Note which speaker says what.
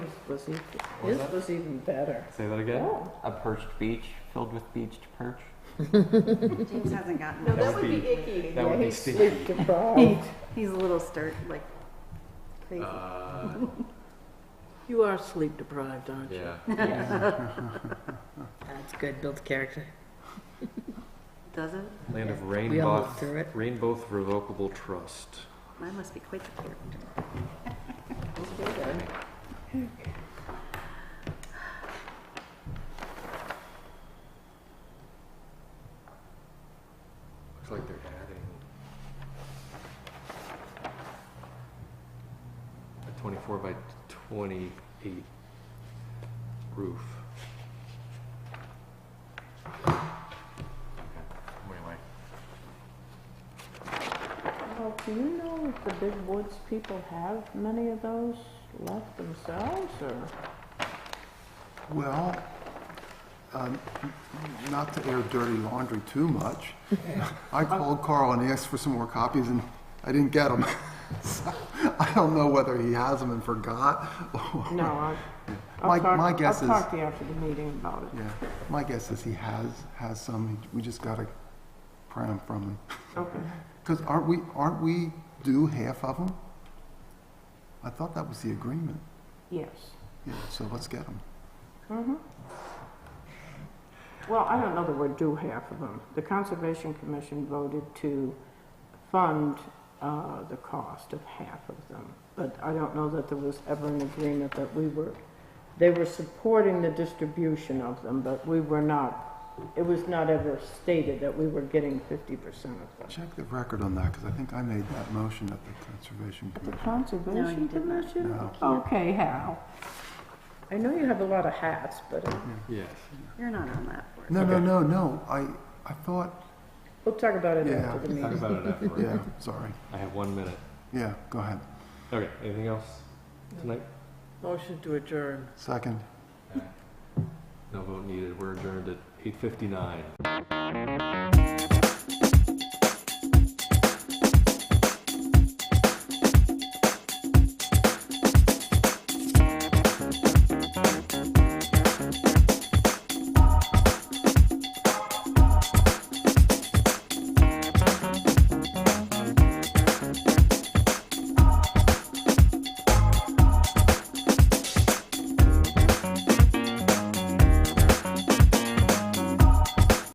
Speaker 1: was even,
Speaker 2: was
Speaker 1: his
Speaker 2: that?
Speaker 1: was even better. Oh,
Speaker 2: Say that again.
Speaker 1: Yeah.
Speaker 2: A perched beach filled with beached perch.
Speaker 3: James hasn't gotten
Speaker 4: No,
Speaker 3: it.
Speaker 4: that would be icky.
Speaker 2: That would
Speaker 1: yeah,
Speaker 2: be
Speaker 1: he's
Speaker 2: sticky.
Speaker 1: sleep deprived.
Speaker 3: He's a little stir like crazy.
Speaker 5: Uh,
Speaker 1: you are sleep deprived, aren't you?
Speaker 5: yeah.
Speaker 6: That's good. Builds character.
Speaker 3: Does it?
Speaker 2: Land of
Speaker 6: We all
Speaker 2: rainbow,
Speaker 6: lived through it.
Speaker 2: rainbow revocable trust.
Speaker 3: Mine must be quite the character.
Speaker 1: eh?
Speaker 5: Looks like they're adding a 24 by 28 roof. Anyway,
Speaker 1: Well, do you know if the big woods people have many of those left themselves, or
Speaker 7: Well, um, not to air dirty laundry too much, I called Carl and asked for some more copies, and I didn't get them. So, I don't know whether he has them and forgot. or-
Speaker 1: no? I, I'll
Speaker 7: My-
Speaker 1: talk,
Speaker 7: my guess
Speaker 1: I'll
Speaker 7: is-
Speaker 1: talk to you after the meeting about it.
Speaker 7: Yeah, my guess is he has, has some, we just gotta pry them from him.
Speaker 1: Okay.
Speaker 7: Because aren't we, aren't we due half of them? I thought that was the agreement.
Speaker 1: Yes.
Speaker 7: Yeah, so let's get them.
Speaker 1: Mm-hmm. Well, I don't know that we're due half of them. The Conservation Commission voted to fund uh, the cost of half of them, but I don't know that there was ever an agreement that we were, they were supporting the distribution of them, but we were not, it was not ever stated that we were getting 50% of them.
Speaker 7: Check the record on that, because I think I made that motion at the Conservation
Speaker 1: The
Speaker 7: Commission.
Speaker 1: Conservation
Speaker 3: did not.
Speaker 1: Commission?
Speaker 7: No.
Speaker 1: Okay, Hal. I know you have a lot of hats, but uh,
Speaker 2: Yes.
Speaker 3: You're not on that board.
Speaker 7: No, no,
Speaker 2: Okay.
Speaker 7: no, no, I, I thought,
Speaker 1: we'll talk about it
Speaker 7: Yeah.
Speaker 1: after the
Speaker 2: Talk
Speaker 1: meeting.
Speaker 2: about it afterward.
Speaker 7: yeah, sorry.
Speaker 2: I have one minute.
Speaker 7: Yeah, go ahead.
Speaker 2: Okay. Anything else tonight?
Speaker 6: Motion to adjourn.
Speaker 7: Second.
Speaker 2: No vote needed. We're adjourned at 8:59.